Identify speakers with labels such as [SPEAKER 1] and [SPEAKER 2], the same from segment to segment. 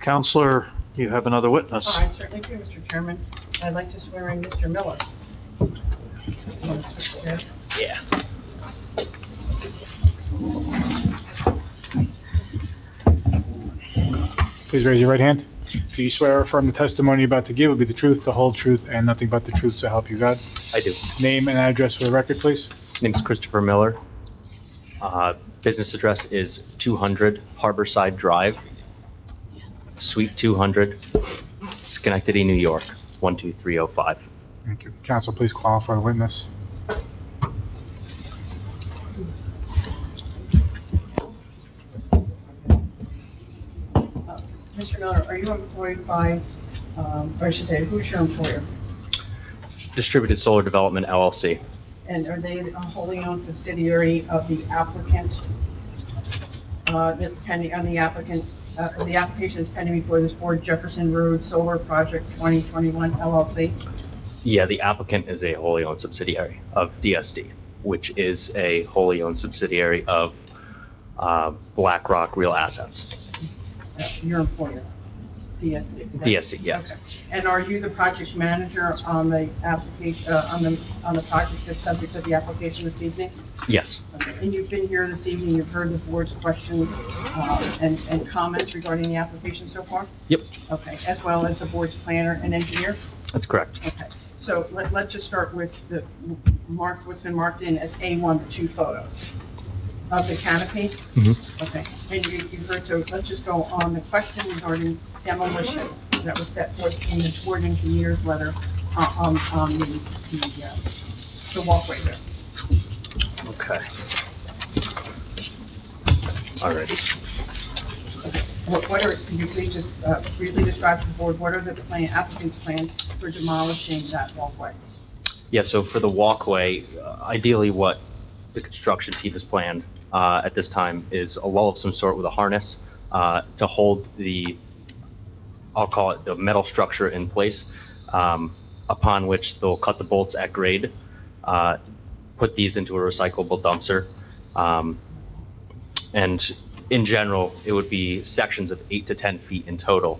[SPEAKER 1] Counselor, you have another witness.
[SPEAKER 2] Oh, I certainly do, Mr. Chairman. I'd like to swear in Mr. Miller. Uh, Yeah.
[SPEAKER 3] Please raise your right hand. Do you swear or affirm the testimony you're about to give will be the truth, the whole truth, and nothing but the truth, so help you God?
[SPEAKER 4] I do.
[SPEAKER 3] Name and address for the record, please.
[SPEAKER 4] Name's Christopher Miller. Uh, Business address is 200 Harborside Drive, Suite 200, Schenectady, New York, 12305.
[SPEAKER 3] Thank you. Counsel, please qualify the witness.
[SPEAKER 2] Uh, Mr. Miller, are you employed by, um, or I should say, who's your employer?
[SPEAKER 4] Distributed Solar Development LLC.
[SPEAKER 2] And are they a wholly owned subsidiary of the applicant? Uh, That's pending, on the applicant, uh, the application is pending before this board, Jefferson Road Solar Project 2021 LLC.
[SPEAKER 4] Yeah, the applicant is a wholly owned subsidiary of DSD, which is a wholly owned subsidiary of uh, BlackRock Real Assets.
[SPEAKER 2] Uh, Your employer, DSD. correct?
[SPEAKER 4] DSD, yes.
[SPEAKER 2] Okay. And are you the project manager on the application, uh, on the, on the project that's subject to the application this evening?
[SPEAKER 4] Yes,
[SPEAKER 2] Okay. And you've been here this evening, you've heard the board's questions, uh, and, and comments regarding the application so far?
[SPEAKER 4] Yep.
[SPEAKER 2] Okay, as well as the board's planner and engineer?
[SPEAKER 4] that's correct.
[SPEAKER 2] Okay, so let, let's just start with the, mark, what's been marked in as A1, the two photos of the canopy?
[SPEAKER 4] Mhm.
[SPEAKER 2] Okay, and you, you heard, so let's just go on the question regarding demolition that was set forth in the board engineer's letter uh, on, on the, the, uh, the walkway there.
[SPEAKER 4] Okay. Alrighty.
[SPEAKER 2] What, what are, can you please just, uh, briefly describe to the board, what are the plan, applicant's plans for demolishing that walkway?
[SPEAKER 4] Yeah, so for the walkway, uh, ideally what the construction team has planned uh, at this time is a lull of some sort with a harness uh, to hold the, I'll call it the metal structure in place, um, upon which they'll cut the bolts at grade, uh, put these into a recyclable dumpster. um, And in general, it would be sections of eight to 10 feet in total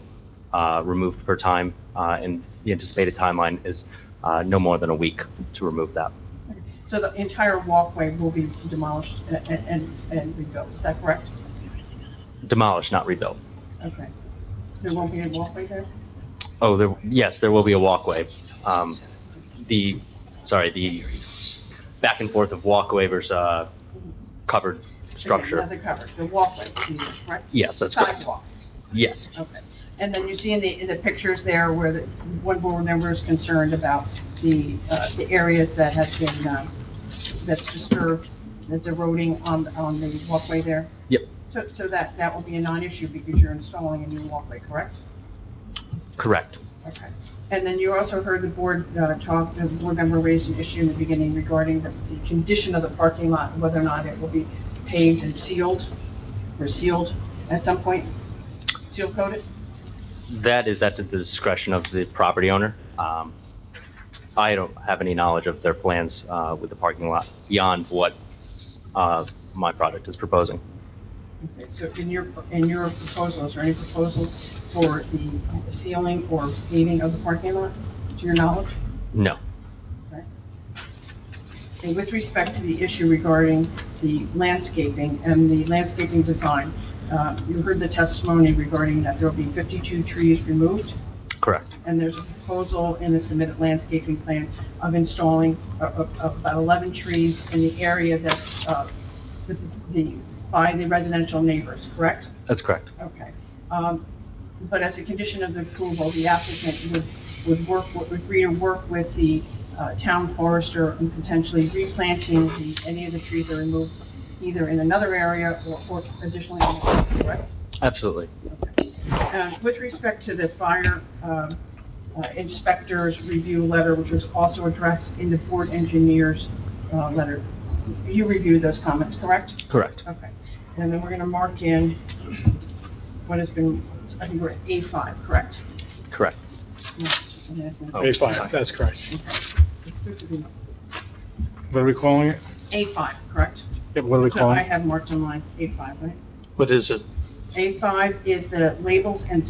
[SPEAKER 4] uh, removed per time. uh, And the anticipated timeline is uh, no more than a week to remove that.
[SPEAKER 2] So the entire walkway will be demolished a- a- and, and rebuilt, is that correct?
[SPEAKER 4] Demolish, not rebuild.
[SPEAKER 2] Okay. There won't be a walkway there?
[SPEAKER 4] Oh, there, yes, there will be a walkway. Um, The, sorry, the back and forth of walkway versus uh, covered
[SPEAKER 2] Again,
[SPEAKER 4] structure.
[SPEAKER 2] Another cover, the walkway, you mean, right?
[SPEAKER 4] Yes, that's correct.
[SPEAKER 2] Sidewalk,
[SPEAKER 4] Yes,
[SPEAKER 2] okay. And then you see in the, in the pictures there where the, one board member is concerned about the, uh, the areas that have been, uh, that's disturbed, that's eroding on, on the walkway there?
[SPEAKER 4] Yep.
[SPEAKER 2] So, so that, that will be a non-issue because you're installing a new walkway, correct?
[SPEAKER 4] correct.
[SPEAKER 2] Okay. And then you also heard the board uh, talk, the board member raised an issue in the beginning regarding the the condition of the parking lot, and whether or not it will be paved and sealed, or sealed at some point, seal coated?
[SPEAKER 4] That is at the discretion of the property owner. Um, I don't have any knowledge of their plans uh, with the parking lot beyond what uh, my project is proposing.
[SPEAKER 2] Okay. So in your, in your proposals, or any proposals for the sealing or paving of the parking lot, to your knowledge?
[SPEAKER 4] No.
[SPEAKER 2] And with respect to the issue regarding the landscaping and the landscaping design, uh, you heard the testimony regarding that there will be 52 trees removed,
[SPEAKER 4] Correct.
[SPEAKER 2] and there's a proposal in the submitted landscaping plan of installing a- a- a- about 11 trees in the area that's uh, the- the, by the residential neighbors, correct?
[SPEAKER 4] That's correct.
[SPEAKER 2] Okay. Um, But as a condition of the approval, the applicant would, would work, would agree to work with the uh, town forester in potentially replanting the, any of the trees that are removed either in another area or or additionally, in the area, correct?
[SPEAKER 4] Absolutely.
[SPEAKER 2] Uh, With respect to the fire um, uh, inspector's review letter, which was also addressed in the board engineer's uh, letter, you reviewed those comments, correct?
[SPEAKER 4] Correct.
[SPEAKER 2] Okay, and then we're gonna mark in what has been, I think we're at A five, correct?
[SPEAKER 4] Correct. Oh,
[SPEAKER 3] A five,
[SPEAKER 4] sorry.
[SPEAKER 3] that's correct. What are we calling it?
[SPEAKER 2] A five, correct?
[SPEAKER 3] Yep, what are we
[SPEAKER 2] So
[SPEAKER 3] calling
[SPEAKER 2] I
[SPEAKER 3] it?
[SPEAKER 2] have marked on mine, A five, right?
[SPEAKER 1] What is it?
[SPEAKER 2] A five is the labels and